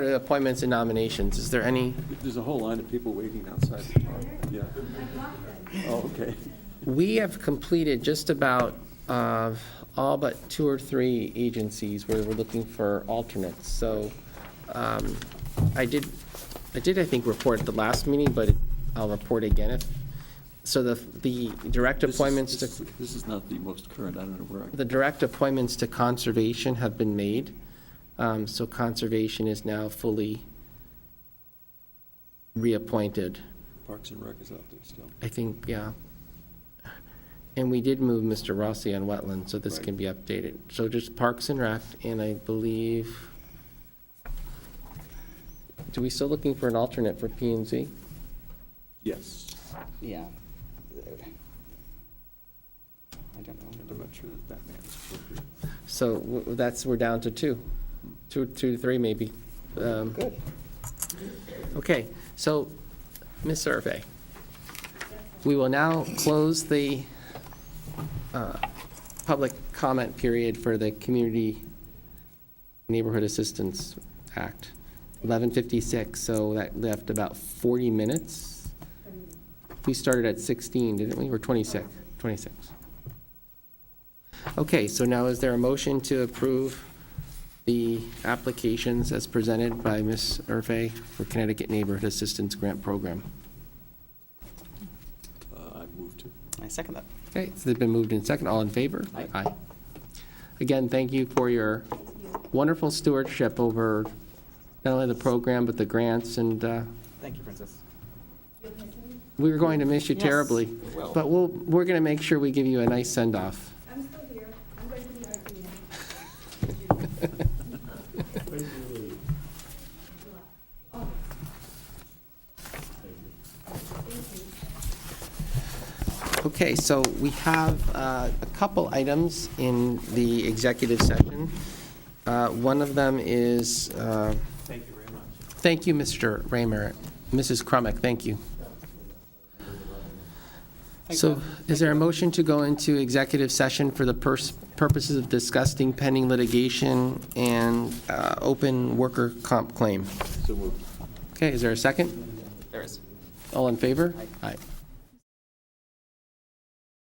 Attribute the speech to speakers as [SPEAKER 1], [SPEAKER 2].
[SPEAKER 1] Appointments and nominations, is there any?
[SPEAKER 2] There's a whole line of people waiting outside the park, yeah. Oh, okay.
[SPEAKER 1] We have completed just about uh, all but two or three agencies where we're looking for alternates. So um, I did, I did, I think, report at the last meeting, but I'll report again. if So the, the direct
[SPEAKER 2] This is-
[SPEAKER 1] appointments
[SPEAKER 2] this
[SPEAKER 1] to,
[SPEAKER 2] is- This is not the most current, I don't know where, I-
[SPEAKER 1] the direct appointments to conservation have been made. Um, So conservation is now fully reappointed.
[SPEAKER 2] Parks and Rec is out there still.
[SPEAKER 1] I think, yeah. And we did move Mr. Rossi on wetlands, so this
[SPEAKER 2] Right.
[SPEAKER 1] can be updated. So just Parks and Rec, and I believe, do we still looking for an alternate for P and Z?
[SPEAKER 2] Yes,
[SPEAKER 3] Yeah. I don't know.
[SPEAKER 2] and I'm not sure that that man is appropriate.
[SPEAKER 1] So w- that's, we're down to two, two, two to three maybe. Um,
[SPEAKER 3] Good.
[SPEAKER 1] Okay, so, Ms. Survey, we will now close the uh, public comment period for the Community Neighborhood Assistance Act, 11:56, so that left about 40 minutes. We started at 16, didn't we, or 26? 26. Okay, so now is there a motion to approve the applications as presented by Ms. Urfe for Connecticut Neighborhood Assistance Grant Program.
[SPEAKER 2] Uh, I moved to.
[SPEAKER 3] I second that.
[SPEAKER 1] Okay, so they've been moved in second. All in favor?
[SPEAKER 3] Aye.
[SPEAKER 1] Again, thank you for your wonderful stewardship over not only the program, but the grants, and uh,
[SPEAKER 3] Thank you, Princess.
[SPEAKER 1] we were going to miss you
[SPEAKER 3] Yes.
[SPEAKER 1] terribly.
[SPEAKER 2] Well-
[SPEAKER 1] But we'll, we're going to make sure we give you a nice send-off.
[SPEAKER 4] I'm still here. I'm going to be arguing.
[SPEAKER 1] Okay, so we have uh, a couple items in the executive session. Uh, One of them is. Thank you very much. Thank you, Mr. Raymer. Mrs. Crumack, thank you. So is there a motion to go into executive session for the pers- purposes of discussing pending litigation and uh, open worker comp claim?
[SPEAKER 2] So moved.
[SPEAKER 1] Okay, is there a second?
[SPEAKER 3] There is.
[SPEAKER 1] All in favor? Aye.